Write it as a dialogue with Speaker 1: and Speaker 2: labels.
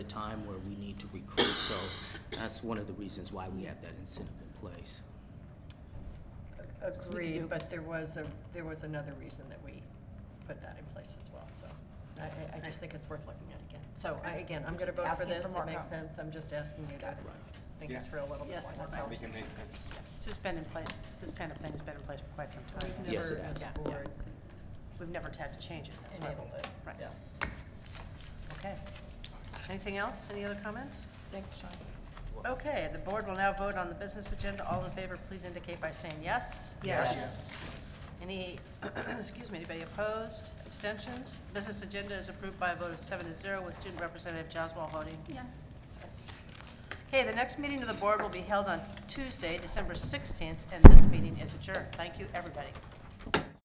Speaker 1: the time where we need to recruit, so that's one of the reasons why we have that incentive in place.
Speaker 2: Agreed, but there was a, there was another reason that we put that in place as well, so I- I, I just think it's worth looking at again. So I, again, I'm gonna
Speaker 3: We're just
Speaker 2: vote for
Speaker 3: asking
Speaker 2: this,
Speaker 3: for
Speaker 2: it
Speaker 3: more
Speaker 2: makes
Speaker 3: help.
Speaker 2: sense, I'm just asking you to think
Speaker 4: Yeah.
Speaker 2: through a little bit
Speaker 3: Yes,
Speaker 2: more, that's
Speaker 3: that's all.
Speaker 2: all.
Speaker 4: We can make sense.
Speaker 3: This has been in place, this kind of thing has been in place for quite some time.
Speaker 2: We've
Speaker 1: Yes, it
Speaker 2: never,
Speaker 1: has.
Speaker 2: as a
Speaker 3: Yeah.
Speaker 2: board,
Speaker 3: We've never had to change it, that's why.
Speaker 2: enabled it.
Speaker 3: Right.
Speaker 2: Yeah.
Speaker 3: Okay. Anything else? Any other comments?
Speaker 2: Thanks, Sean.
Speaker 3: Okay, the board will now vote on the business agenda. All in favor, please indicate by saying yes.
Speaker 2: Yes.
Speaker 3: Any, excuse me, anybody opposed? Abstentions? Business agenda is approved by a vote of seven to zero with student representative Jaswal voting
Speaker 5: Yes.
Speaker 3: yes. Okay, the next meeting of the board will be held on Tuesday, December 16th, and this meeting is adjourned. Thank you, everybody.